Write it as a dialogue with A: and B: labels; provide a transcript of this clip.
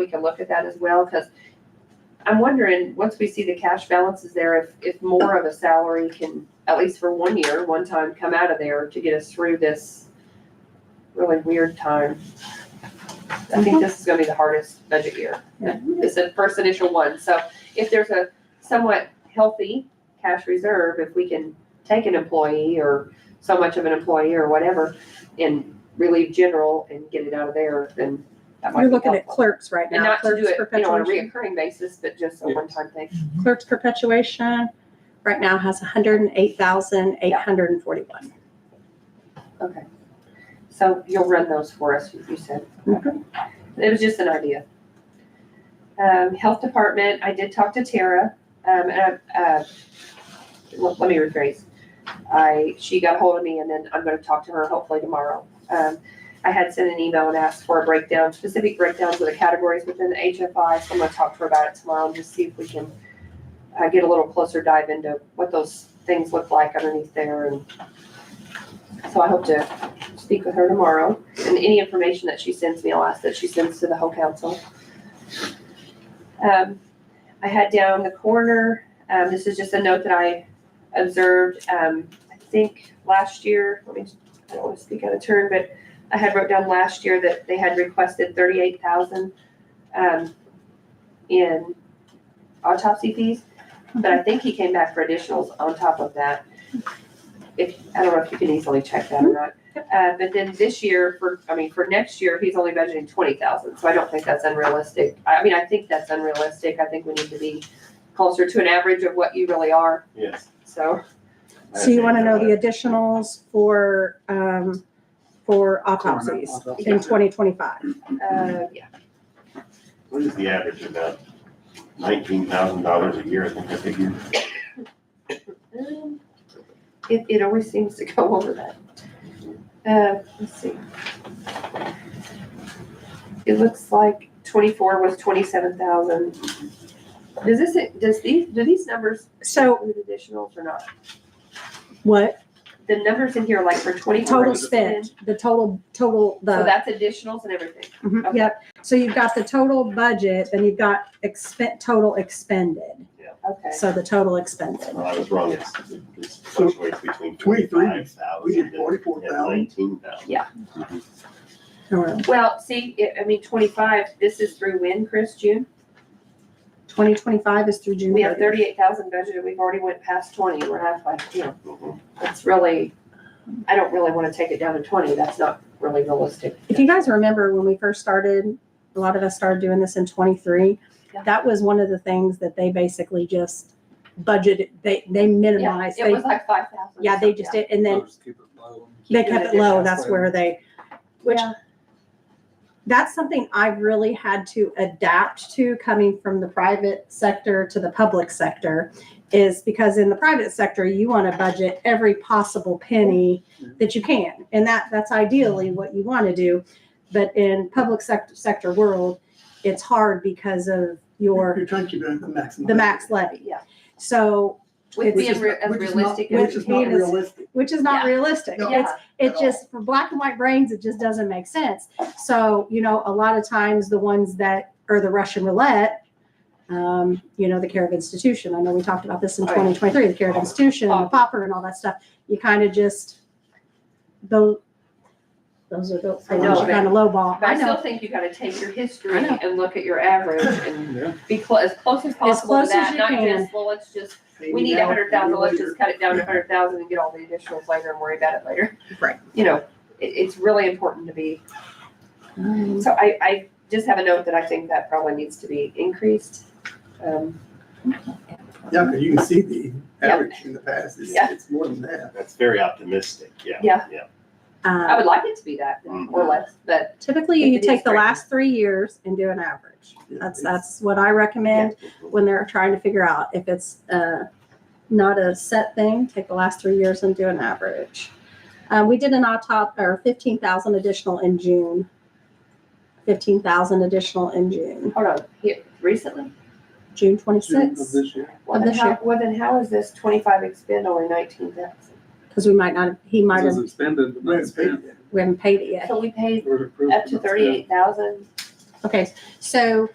A: we can look at that as well, because I'm wondering, once we see the cash balances there, if, if more of a salary can, at least for one year, one time, come out of there to get us through this really weird time. I think this is gonna be the hardest budget year. It's the first initial one, so if there's a somewhat healthy cash reserve, if we can take an employee or so much of an employee or whatever and relieve general and get it out of there, then that might
B: You're
A: be
B: looking at
A: helpful.
B: clerks right
A: And
B: now,
A: not to do
B: clerks
A: it, you know, on a
B: perpetuation,
A: reoccurring basis, but just a
C: Yes.
A: one-time thing.
B: clerks perpetuation right now has hundred and eight thousand, eight hundred and forty-one.
A: Okay. So you'll run those for us, you said.
B: Mhm.
A: It was just an idea. Um, health department, I did talk to Tara, um, and, I- uh, let let me rephrase. I, she got hold of me and then I'm gonna talk to her hopefully tomorrow. Um, I had sent an email and asked for a breakdown, specific breakdowns of the categories within the HFI, so I'm gonna talk to her about it tomorrow and just see if we can uh, get a little closer dive into what those things look like underneath there and so I hope to speak with her tomorrow, and any information that she sends me, I'll ask that she sends to the whole council. Um, I had down the coroner, um, this is just a note that I observed, um, I think last year, let me, I don't wanna speak out of turn, but I had wrote down last year that they had requested thirty-eight thousand, um, in autopsy fees, but I think he came back for additionals on top of that. If, I don't know if you can easily check that or not. Uh, but then this year for, I mean, for next year, he's only budgeting twenty thousand, so I don't think that's unrealistic. I mean, I think that's unrealistic. I think we need to be closer to an average of what you really are,
C: Yes.
A: so.
B: So you wanna know the additionals for, um, for autopsies in twenty twenty-five?
A: Uh, yeah,
C: What is the average about? Nineteen thousand dollars a year, I think I figured.
A: Um, it, it always seems to go over that. Uh, let's see. It looks like twenty-four was twenty-seven thousand. Does this, does these, do these numbers
B: So
A: include additionals or not?
B: what,
A: The numbers in here, like for twenty-four.
B: total spent, the total, total,
A: So
B: the,
A: that's additionals and everything.
B: Mhm,
A: okay.
B: yep. So you've got the total budget, then you've got expen, total expended,
A: Okay.
B: so the total expended.
C: Well, I was wrong. It's, it's fluctuates between
D: Twenty-three.
C: twenty-five
D: We
C: thousand
D: did
C: and
D: oh, forty-four thousand.
C: nineteen thousand.
A: Yeah.
B: Or
A: Well, see, it- I mean, twenty-five, this is through when, Chris, June?
B: 2025 is through June
A: We have
B: 30th.
A: thirty-eight thousand budgeted, we've already went past twenty, we're halfway, you know,
C: Mm-hmm.
A: that's really, I don't really wanna take it down to twenty, that's not really realistic.
B: If you guys remember when we first started, a lot of us started doing this in 23.
A: Yeah.
B: That was one of the things that they basically just budgeted, they, they
A: Yeah,
B: minimized.
A: it
B: They,
A: was like five thousand.
B: yeah, they just did, and then they
A: Keep it
B: kept it
A: additional.
B: low. That's where they, which
A: Yeah.
B: that's something I've really had to adapt to coming from the private sector to the public sector is because in the private sector, you want to budget every possible penny that you can. And that, that's ideally what you want to do. But in public sector, sector world, it's hard because of your,
D: You're trying to keep it at the maximum.
B: the max levy.
A: Yeah.
B: So,
A: With
B: It's-
A: being
D: Which is
A: re-
D: not-
A: as
D: which is not-
A: realistic
D: Which
A: as we
D: is not
B: Which is-
A: can.
D: realistic.
B: which is not
A: Yeah.
B: realistic.
D: No.
B: It's,
A: Yeah,
B: it
D: at all.
B: just for black and white brains it just doesn't make sense so you know a lot of times the ones that are the russian roulette um, you know the care of institution i know we talked about this in
A: Right.
B: 2023 the care of institution and the popper and all that stuff you kind of just those those are the
A: I
B: ones
A: know,
B: you kind of lowball
A: But
B: i
A: I still
B: know
A: think you gotta take your history
B: I know.
A: and look at your average and
D: Yeah.
A: be clo- as close as possible to
B: close as
A: that,
B: you
A: not
B: can.
A: just, well, let's just we
D: Maybe
A: need a
D: now,
A: hundred thousand,
D: maybe
A: let's
D: later.
A: just cut it down to a hundred thousand and get all the additionals later and worry about it later.
B: Right.
A: You know, it, it's really important to be, so I, I just have a note that I think that probably needs to be increased. Um,
D: Yeah, because you can see the
A: Yeah.
D: average in the past, it's,
A: Yeah.
D: it's more than that.
C: That's very optimistic, yeah.
A: Yeah.
C: Yeah.
A: I
B: um,
A: would like it to be that, or less, but
B: typically
A: If
B: you
A: it is
B: take the
A: great.
B: last three years and do an average
D: Yeah,
B: that's
D: it's-
B: that's what i recommend when they're trying to figure out if it's uh, not a set thing, take the last three years and do an average. Uh, we did an autopsy or 15,000 additional in June. 15,000 additional in June,
A: hold on, here, recently?
B: June
D: June of
B: 26th,
D: this year.
A: Well,
B: Of
A: then
B: this
A: how,
B: year.
A: well, then how is this twenty-five expend only nineteen thousand?
B: because we might not, he might have,
E: Doesn't spend it,
D: We
E: but not
D: haven't paid
E: spent.
D: it yet.
B: we haven't paid it yet.
A: So we paid
E: We're approved,
A: up to
E: but not spent.
A: thirty-eight thousand
B: Okay, so